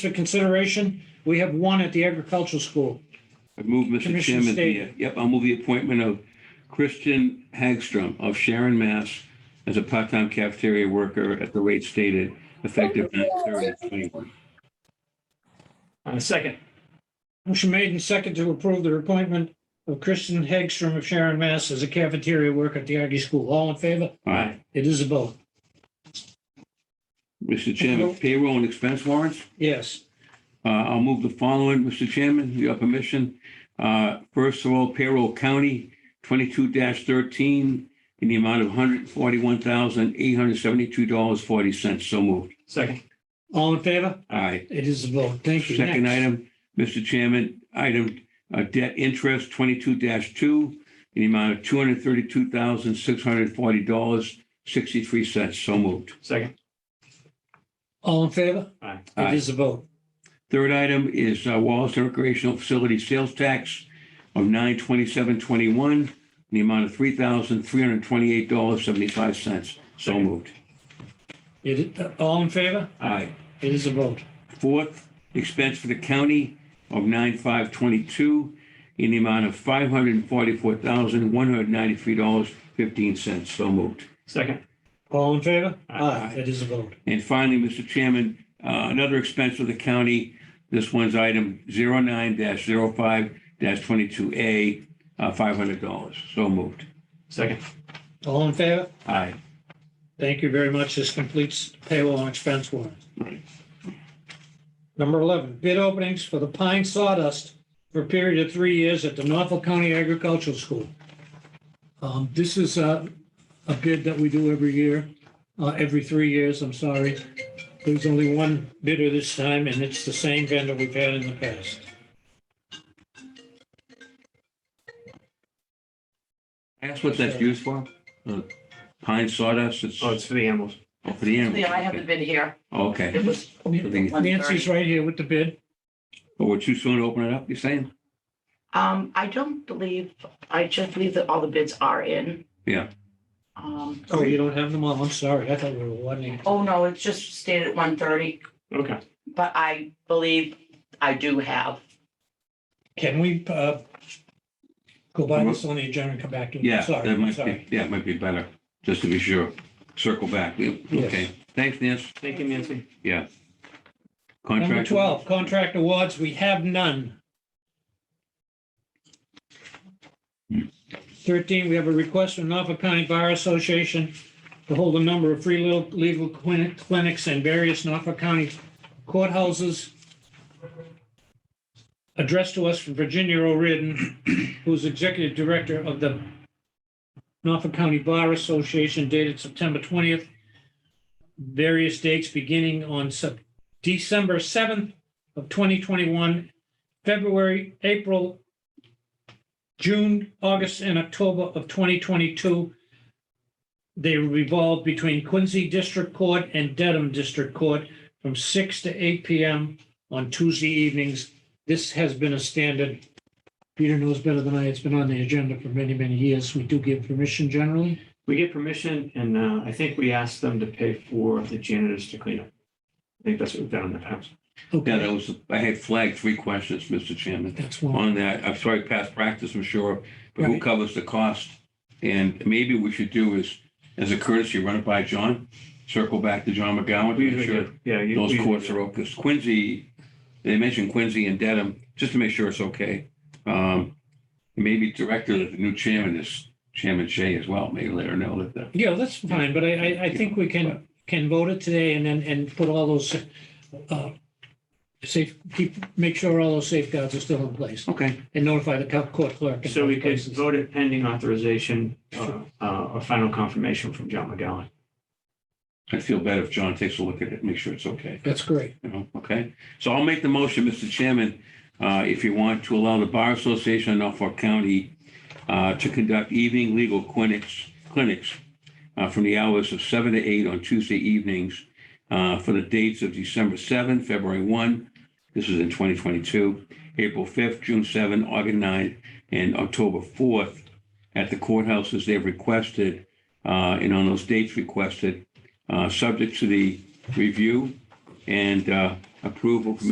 for consideration, we have one at the agricultural school. I move, Mr. Commissioner Chairman, the, Stady. uh, yep, I'll move the appointment of Christian Hagstrom of Sharon, Mass. as a part-time cafeteria worker at the rate stated, effective 9/30/21. Uh, second, Motion made and second to approve the appointment of Kristen Hagstrom of Sharon, Mass. as a cafeteria worker at the Aggie School. All in favor? Aye. It is a vote. Mr. Chairman, payroll and expense warrants? Yes. Uh, I'll move the following, Mr. Chairman, with your permission. Uh, First of all, payroll county twenty-two thirteen in the amount of one hundred forty-one thousand, eight hundred seventy-two dollars, forty cents. So moved. second, All in favor? Aye. It is a vote. Thank you. Second Next. item, Mr. Chairman, item uh, debt interest twenty-two two in the amount of two hundred thirty-two thousand, six hundred forty dollars, sixty-three cents. So moved. second, All in favor? Aye. It is a vote. Third item is uh, Wallace Recreational Facility Sales Tax of nine twenty-seven twenty-one in the amount of three thousand, three hundred twenty-eight dollars, seventy-five cents. So moved. It, uh, all in favor? Aye. It is a vote. Fourth, expense for the county of nine five twenty-two in the amount of five hundred and forty-four thousand, one hundred ninety-three dollars, fifteen cents. So moved. second, All in favor? Aye. It is a vote. And finally, Mr. Chairman, uh, another expense of the county. This one's item 09-05-22A, uh, $500. So moved. second, All in favor? Aye. Thank you very much. This completes payroll and expense warrant. Right. Number 11, bid openings for the pine sawdust for a period of three years at the Norfolk County Agricultural School. Um, This is a, a bid that we do every year, uh, every three years, I'm sorry. There's only one bidder this time, and it's the same vendor we've had in the past. Ask what that's used for? Uh, Pine sawdust? It's oh, oh, it's for the animals. for the animals. Yeah, I haven't been here. Okay. It was. Everything- Nancy's right here with the bid. Oh, we're too soon to open it up, you're saying? Um, I don't believe, I just believe that all the bids are in. Yeah. Um, Oh, you don't have them all. I'm sorry. I thought we were wanting. oh, no, it's just stayed at one thirty, Okay, but I believe I do have. Can we uh, go by this on the agenda and come back to it? Yeah, Sorry, that might sorry. be, yeah, it might be better, just to be sure. Circle back. Yeah, Yes. Okay. Thanks, Nancy. thank you, Nancy. Contract. Number 12, contract awards, we have none. 13, we have a request from Norfolk County Bar Association to hold a number of free legal- legal clinic- clinics in various Norfolk County courthouses addressed to us from Virginia O'Riordan, who's executive director of the Norfolk County Bar Association dated September 20th. Various dates beginning on September December 7th of 2021, February, April, June, August, and October of 2022. They revolve between Quincy District Court and Dedham District Court from 6 to 8 PM on Tuesday evenings. This has been a standard. Peter knows better than I. It's been on the agenda for many, many years. We do give permission generally. We get permission and uh, I think we asked them to pay for the janitors to clean up. I think that's what we've done in the past. Yeah, Okay, that was, I had flagged three questions, Mr. Chairman. that's one. on that. I'm sorry, past practice, I'm sure, but who Right. covers the cost? And maybe we should do is, as a courtesy, run it by John, circle back to John McGowan, We to usually make sure do. Yeah. you- those we- courts are open. Because Quincy, they mentioned Quincy and Dedham, just to make sure it's okay. Um, Maybe director, the new chairman is Chairman Shea as well, maybe let her know that. uh, the- Yeah, that's fine, but I, I, I think we can, can vote it today and then, and put all those, uh, safe, keep, make sure all those safeguards are still in place Okay, and notify the co- court clerk. in So we both could places. vote it pending authorization uh, uh, or final confirmation from John McGowan. I'd feel better if John takes a look at it, make sure it's okay. That's great. You know, Okay, so I'll make the motion, Mr. Chairman, uh, if you want to allow the Bar Association of Norfolk County uh, to conduct evening legal clinics, clinics uh, from the hours of seven to eight on Tuesday evenings uh, for the dates of December 7, February 1, this is in 2022, April 5th, June 7, August 9, and October 4th at the courthouses they've requested, uh, and on those dates requested, uh, subject to the review and uh, approval from